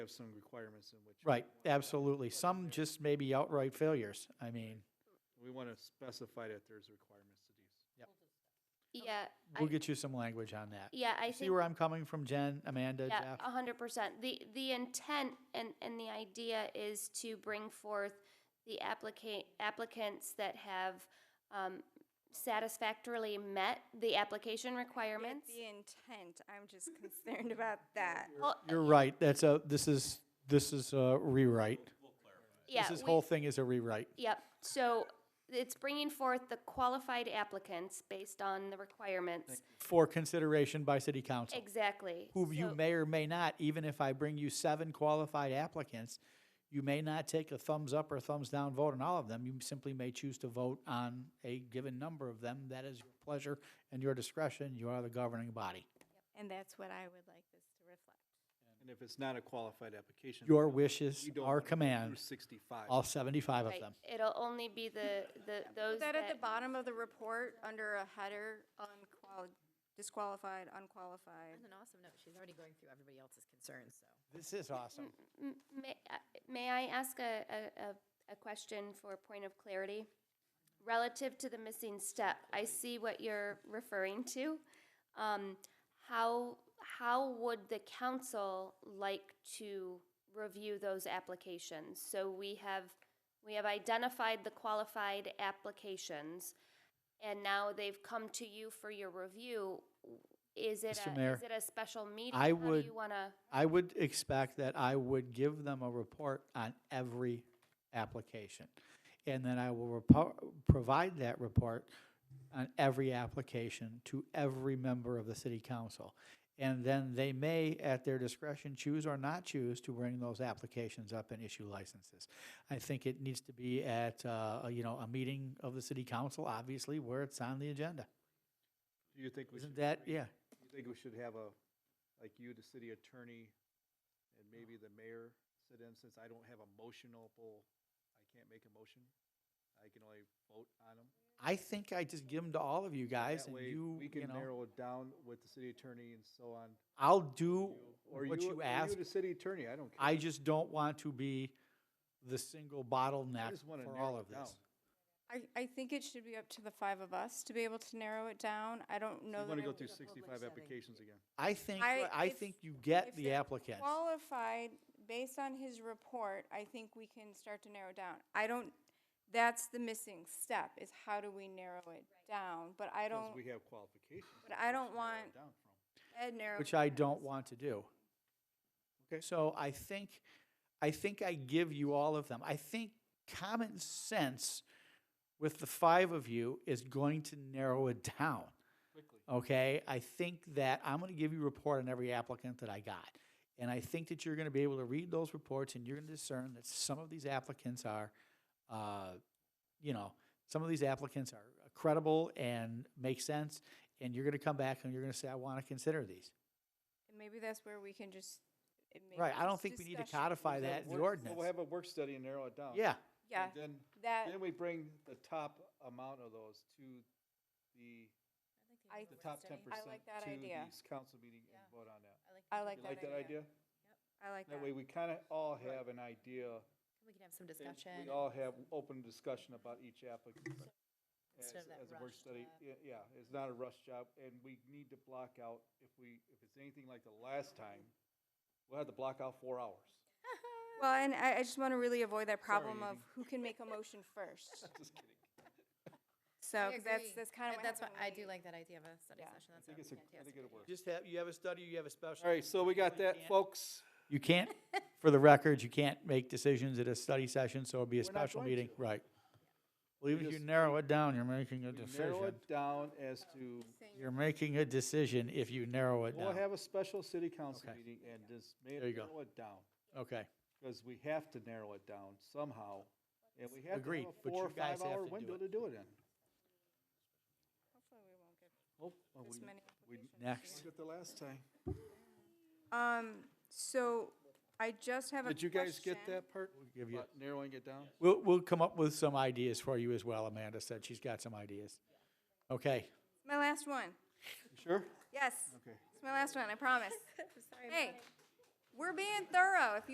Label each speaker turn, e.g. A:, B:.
A: have some requirements in which.
B: Right, absolutely. Some just maybe outright failures. I mean,
A: We want to specify that there's requirements to these.
C: Yeah,
B: we'll
C: I-
B: get you some language on that.
C: yeah, I
B: See
C: think,
B: where I'm coming from, Jen, Amanda,
C: yeah, uh-huh.
B: Jeff?
C: a hundred percent. The, the intent and, and the idea is to bring forth the applicant, applicants that have, um, satisfactorily met the application requirements.
D: The intent, I'm just concerned about that.
C: Well,
B: You're right. That's a, this is, this is a rewrite.
C: yeah,
B: This is-
C: we-
B: whole thing is a rewrite.
C: Yep, so it's bringing forth the qualified applicants based on the requirements.
B: for consideration by city council.
C: Exactly.
B: Who you
C: So-
B: may or may not, even if I bring you seven qualified applicants, you may not take a thumbs up or thumbs down vote on all of them. You simply may choose to vote on a given number of them. That is your pleasure and your discretion. You are the governing body.
D: And that's what I would like this to reflect.
A: And if it's not a qualified application.
B: Your
A: we
B: wishes
A: don't
B: are
A: wanna go through
B: command,
A: Sixty-five.
B: all seventy-five of
C: right,
B: them.
C: It'll only be the, the, those
D: That at the
C: that,
D: bottom of the report, under a header, unqual, disqualified, unqualified.
E: That's an awesome note. She's already going through everybody else's concerns, so.
B: This is awesome.
C: M- may, uh, may I ask a, a, a- a question for a point of clarity? Relative to the missing step, I see what you're referring to. Um, how, how would the council like to review those applications? So we have, we have identified the qualified applications, and now they've come to you for your review. Is it
B: Mr.
C: a,
B: Mayor,
C: is it a special meeting?
B: I
C: How
B: would-
C: do you wanna?
B: I would expect that I would give them a report on every application. And then I will repo- provide that report on every application to every member of the city council. And then they may, at their discretion, choose or not choose to bring those applications up and issue licenses. I think it needs to be at, uh, you know, a meeting of the city council, obviously, where it's on the agenda.
A: Do you think we should?
B: Isn't that, yeah,
A: You think we should have a, like you, the city attorney, and maybe the mayor sit in, since I don't have a motionable, I can't make a motion. I can only vote on them.
B: I think I just give them to all of you guys
A: That
B: and
A: way,
B: you,
A: We
B: you
A: can
B: know.
A: narrow it down with the city attorney and so on.
B: I'll do
A: Or
B: what you
A: or
B: ask.
A: the city attorney, I don't care.
B: I just don't want to be the single bottleneck
A: just wanna
B: for
A: narrow
B: all
A: it
B: of this.
D: I, I think it should be up to the five of us to be able to narrow it down. I don't
A: You
D: know that
A: want to
D: I
A: go
D: would-
A: through sixty-five applications again.
B: I think,
D: I-
B: I
D: if-
B: think you get
D: if
B: the
D: they're
B: applicants.
D: Qualified, based on his report, I think we can start to narrow down. I don't, that's the missing step, is how do we narrow it down? But I
A: Because
D: don't,
A: we have qualifications.
D: but I don't
A: Let's narrow it
D: want
A: down from.
D: Ed narrow.
B: Which I don't want to do.
A: Okay.
B: So I think, I think I give you all of them. I think common sense with the five of you is going to narrow it down. Oh, Okay, I think that I'm gonna give you a report on every applicant that I got. And I think that you're gonna be able to read those reports and you're gonna discern that some of these applicants are, uh, you know, some of these applicants are credible and make sense. And you're gonna come back and you're gonna say, I wanna consider these.
D: And Maybe that's where we can just. it may
B: Right, I
D: be
B: don't
D: just
B: think we need to
D: discussion.
B: codify
A: So
B: that in the
A: work- so We'll
B: ordinance.
A: have a work study and narrow it down.
B: Yeah,
D: Yeah,
A: And Then,
D: that,
A: then we bring the top amount of those to the,
D: I,
A: the top ten
D: I
A: percent.
D: like that
A: To
D: idea.
A: the council meeting and vote on that.
D: I like
A: You
D: that
A: like that
D: idea.
A: idea?
D: I like that.
A: That way, we kind of all have an idea.
E: We can have some
A: and
E: discussion.
A: We all have open discussion about each applicant. As,
E: Instead of that uh,
A: as a work
E: rush
A: study,
E: job.
A: yeah, yeah, it's not a rush job, and we need to block out, if we, if it's anything like the last time, we'll have to block out four hours.
D: Well, and I, I just want to really avoid that problem
A: Sorry,
D: of who can make a motion first.
A: Just kidding.
D: So,
E: I
D: 'cause that's,
E: agree.
D: that's kind of
E: Uh,
D: what
E: That's
D: happened
E: what,
D: when
E: I do
D: we-
E: like that idea of a study
D: Yeah.
A: I
E: session. That's
A: think
E: a
A: it's a, I think
E: fantastic
A: it'll work.
B: just have, you have a study, you have a special.
A: All right, so we got that, folks.
B: You can't, for the record, you can't make decisions at a study session, so it'll be a
A: We're not
B: special
A: going
B: meeting,
A: to.
B: right. Well, even if you
A: just-
B: narrow it down, you're making a
A: We narrow
B: decision.
A: it down as to,
B: You're making a decision if you narrow it
A: we'll
B: down.
A: have a special city council
B: Okay.
A: meeting and just ma-
B: There you go.
A: narrow it down.
B: Okay,
A: Because we have to narrow it down somehow, and we have to
B: Agreed,
A: have
B: but
A: a four
B: you
A: or
B: guys have
A: five hour
B: to do
A: window
B: it.
A: to do it in.
D: Hopefully we won't get
A: Oh, oh,
D: this
A: we-
D: many
A: we
B: next.
A: did it the last time.
D: Um, so I just have a
A: Did you guys get
D: question.
A: that part?
B: We'll give you-
A: About Narrowing it down?
B: We'll, we'll come up with some ideas for you as well. Amanda said she's got some ideas. Okay,
D: My last one.
A: You Sure?
D: Yes,
A: Okay.
D: it's my last one, I promise.
E: idea. Sorry about
D: Hey, we're being thorough. If you